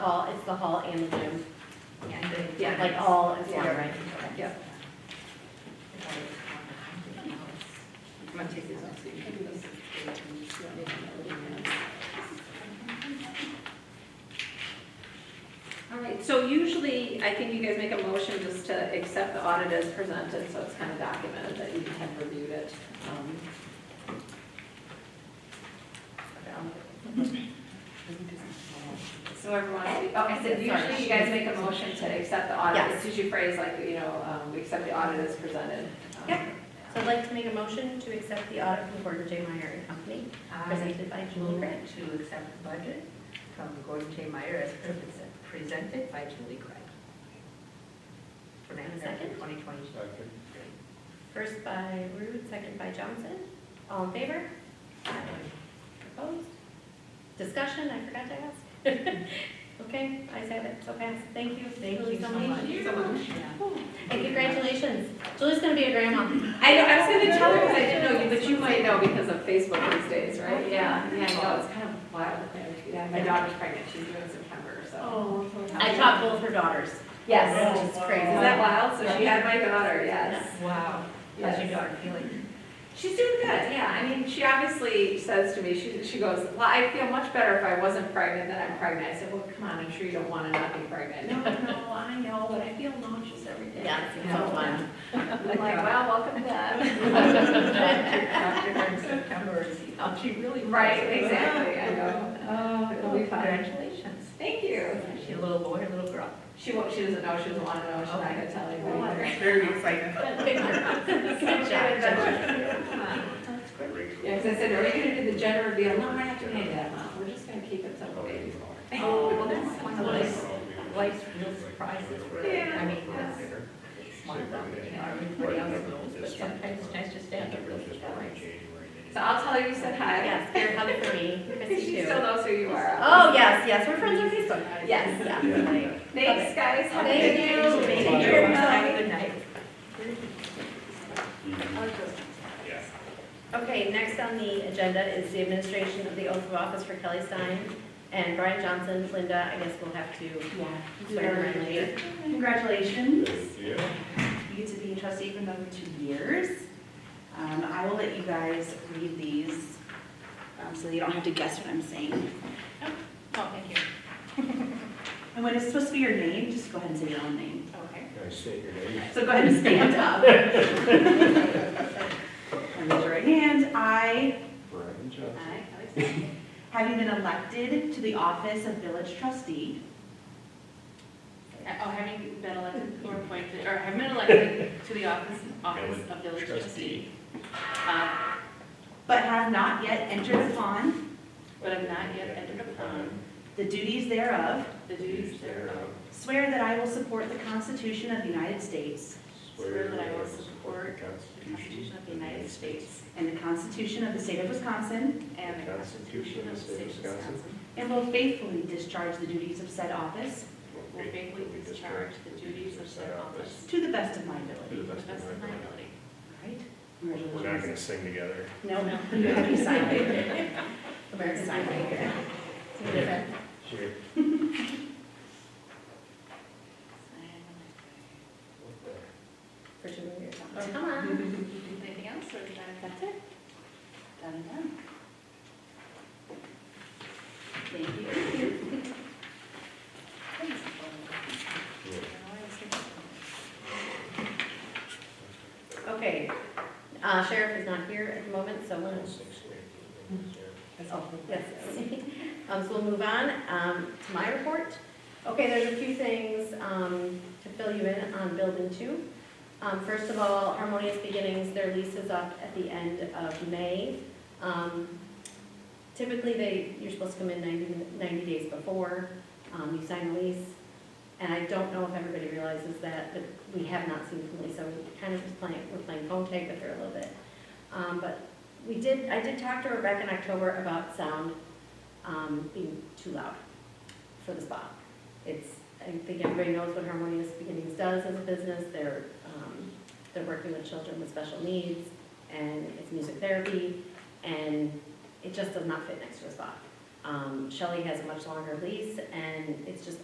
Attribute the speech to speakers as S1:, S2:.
S1: Hall, it's the hall and the gym,
S2: And the-
S1: like all is one,
S2: Yeah.
S1: right? Okay.
S2: Yeah. I'm gonna take this off. so you can- All right, so usually, I think you guys make a motion just to accept the audit as presented, so it's kind of documented that you have reviewed it. Um, So everyone, oh, I said usually you guys make a motion to accept the audit. It's usually phrased like, you know, um, we accept the audit as presented. Um,
S1: Yeah. So I'd like to make a motion to accept the audit from Gordon J. Meyer and Company, presented by Julie
S3: Move
S1: Grant.
S3: to accept the budget from Gordon J. Meyer as presen- presented by Julie Craig. For
S1: And a
S3: November
S1: second?
S3: 2022.
S4: Second.
S1: First by Rude, second by Johnson. All in favor? Opposed? Discussion, I forgot to ask. Okay, I said it, so passed. Thank you. Thank
S2: Um,
S3: So much. Yeah.
S1: And congratulations. Julie's gonna be a grandma.
S2: I know, I was gonna tell her because I didn't know you, but you might know because of Facebook these days, right? Yeah, yeah, I know, it's kind of wild. Yeah, Oh. My daughter's pregnant, she's due in September, so.
S1: I taught both her daughters.
S2: Yes.
S1: It's
S2: Is
S1: crazy.
S2: that wild? So she had my daughter, yes.
S3: Wow. How's your
S2: Yes.
S3: daughter feeling?
S2: She's doing good, yeah. I mean, she obviously says to me, she, she goes, well, I feel much better if I wasn't pregnant than I'm pregnant. I said, well, come on, I'm sure you don't want to not be pregnant. No, no, I know, but I feel nauseous every day.
S1: Yeah, it's so fun.
S2: I'm like, wow, welcome to that.
S3: After her in September, and see how she really. feels.
S2: Right, exactly, I know.
S3: Oh,
S2: it'll be fun.
S3: Congratulations.
S2: Thank you.
S3: Is she a little boy or a little girl?
S2: She, wa- she doesn't know, she doesn't want to know, she's not gonna tell anybody.
S3: Very excited.
S1: Good job, Julie.
S3: That's great.
S2: Yeah, because I said, are we gonna do the gender reveal? No, we're not doing any of that, Mom, we're just gonna keep it till the baby's born.
S3: Oh, well, that's one of those
S4: Like,
S3: life's real surprises, really. I mean, that's smart about it, you know, everybody else knows, but sometimes it's nice to stand there really.
S2: So I'll tell her you said hi.
S1: Yes, you're coming for me. Chrissy
S2: She
S1: too.
S2: still knows who you are.
S1: Oh, yes, yes, we're friends on Facebook.
S2: Yes.
S1: Yeah.
S2: Thanks, guys. Have a
S1: Thank
S2: good
S1: you.
S2: day.
S1: Thank
S2: Take
S1: you.
S2: care.
S3: Have a
S2: Bye.
S3: good night.
S1: Okay, next on the agenda is the administration of the oath of office for Kelly Stein and Brian Johnson. Linda, I guess we'll have to swear her in later.
S5: Congratulations.
S4: Yeah.
S5: You get to be a trustee for another two years. Um, I will let you guys read these, um, so that you don't have to guess what I'm saying.
S3: Oh, thank you.
S5: And when it's supposed to be your name, just go ahead and say your own name.
S3: Okay.
S4: Can I state your name?
S5: So go ahead and stand up. And raise your right hand. I,
S4: Brian Johnson.
S5: I, having been elected to the office of village trustee
S6: Oh, having been elected or appointed, or having been elected to the office, office of village trustee. uh,
S5: but have not yet entered upon
S6: But have not yet entered upon
S5: the duties thereof,
S6: the duties thereof.
S5: swear that I will support the Constitution of the United States
S6: Swear that I will support the Constitution of the United States
S5: and the Constitution of the State of Wisconsin,
S6: and the Constitution of the State of Wisconsin.
S5: and will faithfully discharge the duties of said office
S6: Will faithfully discharge the duties of said office
S5: to the best of my
S4: To
S5: ability.
S4: the
S6: to the
S4: best
S6: best of
S4: of
S6: my
S4: my
S6: ability.
S5: Right?
S4: ability. We're not gonna sing together.
S5: No, no, you have to sign right here.
S1: American
S5: Sign right here.
S4: Sure.
S1: For two more years. Oh, Come on.
S6: Anything else, or is that?
S5: That's it. Done and done. Thank you.
S1: Okay. Uh, Sheriff is not here at the moment, so we'll, oh, yes. Um, So we'll move on um, to my report. Okay, there's a few things um, to fill you in on Building Two. Um, First of all, Harmonious Beginnings, their lease is up at the end of May. Um, Typically, they, you're supposed to come in 90 min- 90 days before um, you sign a lease. And I don't know if everybody realizes that, but we have not seen from Lisa, we're kind of just playing, we're playing phone tag with her a little bit. Um, But we did, I did talk to her back in October about sound um, being too loud for the spa. It's, I think everybody knows what Harmonious Beginnings does as a business. They're, um, they're working with children with special needs, and it's music therapy, and it just does not fit next to a spa. Um, Shelley has a much longer lease, and it's just